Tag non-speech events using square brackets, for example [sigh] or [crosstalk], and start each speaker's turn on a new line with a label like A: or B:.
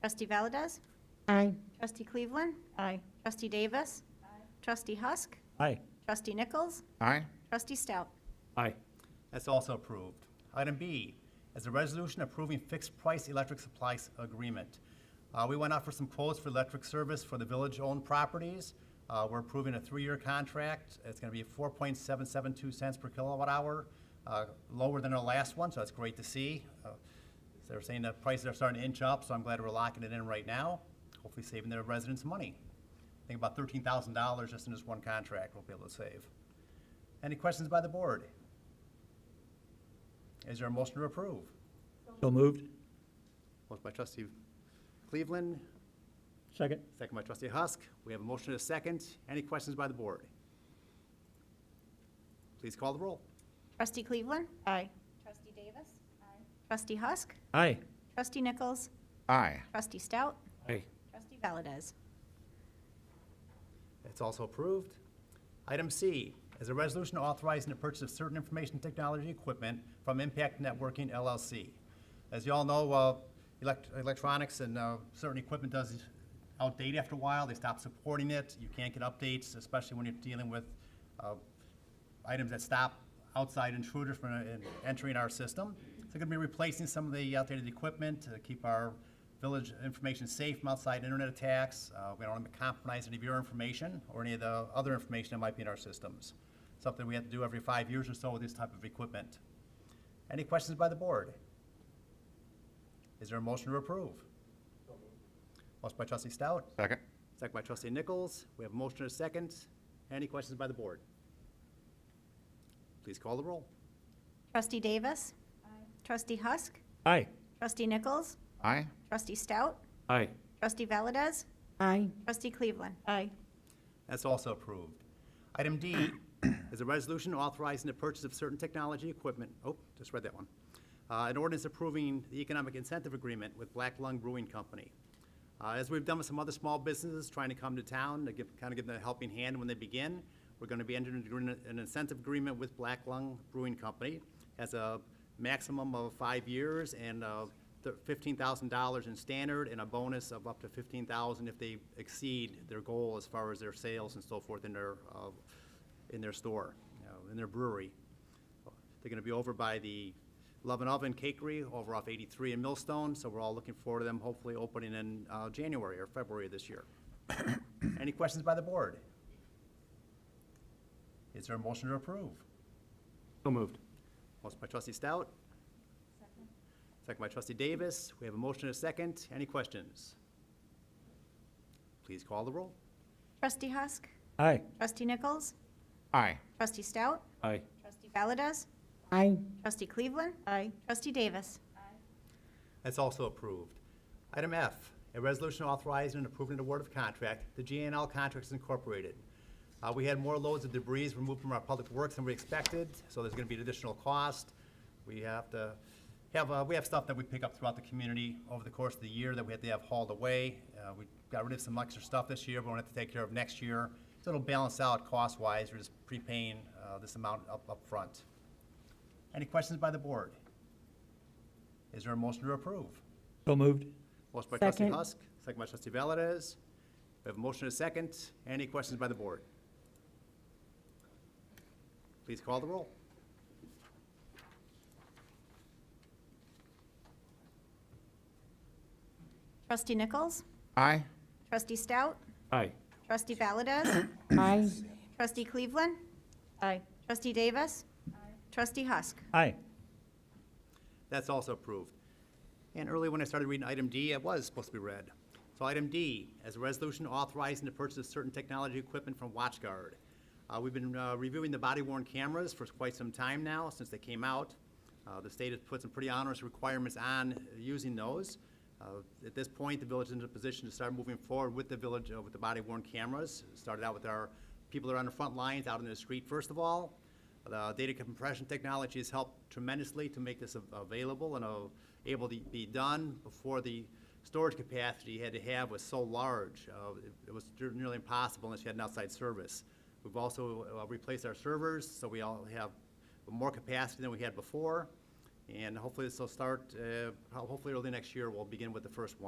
A: Trustee Valdez?
B: Aye.
A: Trustee Cleveland?
B: Aye.
A: Trustee Davis? Trustee Husk?
C: Aye.
A: Trustee Nichols?
D: Aye.
A: Trustee Stout?
C: Aye.
E: That's also approved. Item B is a resolution approving fixed-price electric supply s- agreement. Uh, We went out for some quotes for electric service for the village-owned properties. Uh, We're approving a three-year contract. It's going to be 4.772 cents per kilowatt hour, uh, lower than our last one, so that's great to see. Uh, They're saying that prices are starting to inch up, so I'm glad we're locking it in right now, hopefully saving their residents money. I think about $13,000 just in this one contract we'll be able to save. Any questions by the board? Is there a motion to approve?
C: So moved.
E: Motion by trustee Cleveland,
C: Second.
E: second by trustee Husk. We have a motion and a second. Any questions by the board? Please call the roll.
A: Trustee Cleveland?
B: Aye.
A: Trustee Davis? Trustee Husk?
C: Aye.
A: Trustee Nichols?
D: Aye.
A: Trustee Stout?
C: Aye.
A: Trustee Valdez?
E: It's also approved. Item C is a resolution authorizing the purchase of certain information technology equipment from Impact Networking LLC. As you all know, uh, elect- electronics and uh, certain equipment does outdate after a while. They stop supporting it. You can't get updates, especially when you're dealing with uh, items that stop outside intruders from uh, in- entering our system. So we're going to be replacing some of the outdated equipment to keep our village information safe from outside internet attacks. Uh, We don't want to compromise any of your information or any of the other information that might be in our systems. Something we have to do every five years or so with this type of equipment. Any questions by the board? Is there a motion to approve? Motion by trustee Stout,
D: Second.
E: second by trustee Nichols. We have a motion and a second. Any questions by the board? Please call the roll.
A: Trustee Davis? Trustee Husk?
C: Aye.
A: Trustee Nichols?
D: Aye.
A: Trustee Stout?
C: Aye.
A: Trustee Valdez?
B: Aye.
A: Trustee Cleveland?
B: Aye.
E: That's also approved. Item D [coughs] is a resolution authorizing the purchase of certain technology equipment, oh, just read that one. Uh, An ordinance approving the economic incentive agreement with Black Lung Brewing Company. Uh, As we've done with some other small businesses trying to come to town, to give, kind of give them a helping hand when they begin, we're going to be entering into an- an incentive agreement with Black Lung Brewing Company as a maximum of five years and uh, th- $15,000 in standard and a bonus of up to 15,000 dollars if they exceed their goal as far as their sales and so forth in their, uh, in their store, you know, in their brewery. They're gonna be over by the Love and Oven Cakery over off 83 and Millstone, so we're all looking forward to them hopefully opening in uh, January or February of this year. Any questions by the board? Is there a motion to approve?
C: So moved.
E: Motion by trustee Stout. Second by trustee Davis. We have a motion and a second. Any questions? Please call the roll.
A: Trustee Husk?
C: Aye.
A: Trustee Nichols?
D: Aye.
A: Trustee Stout?
C: Aye.
A: Trustee Valdez?
B: Aye.
A: Trustee Cleveland?
B: Aye.
A: Trustee Davis?
E: That's also approved. Item F, a resolution authorizing and approving an award of contract, the GNL Contracts Incorporated. Uh, we had more loads of debris removed from our public works than we expected, so there's gonna be an additional cost. We have to have, uh, we have stuff that we pick up throughout the community over the course of the year that we have to have hauled away. Uh, we got rid of some extra stuff this year, but we're gonna have to take care of next year. So it'll balance out cost-wise, we're just prepaying, uh, this amount up, upfront. Any questions by the board? Is there a motion to approve?
C: So moved.
E: Motion by trustee
B: Second.
E: Husk, second by trustee Valdez. We have a motion and a second. Any questions by the board? Please call the roll.
A: Trustee Nichols?
D: Aye.
A: Trustee Stout?
C: Aye.
A: Trustee Valdez?
B: Aye.
A: Trustee Cleveland?
B: Aye.
A: Trustee Davis? Trustee Husk?
C: Aye.
E: That's also approved. And earlier when I started reading item D, it was supposed to be read. So item D, as a resolution authorizing the purchase of certain technology equipment from WatchGuard. Uh, we've been uh, reviewing the body worn cameras for quite some time now, since they came out. Uh, the state has put some pretty onerous requirements on using those. Uh, At this point, the village is in a position to start moving forward with the village, uh, with the body worn cameras. Started out with our people that are on the front lines, out in the street first of all. The uh, data compression technology has helped tremendously to make this av- available and uh, able to be done before the storage capacity you had to have was so large. uh, it- It was nearly impossible unless you had an outside service. We've also uh, replaced our servers, so we all have more capacity than we had before. And hopefully this will start, uh, ho- hopefully early next year, we'll begin with the first one.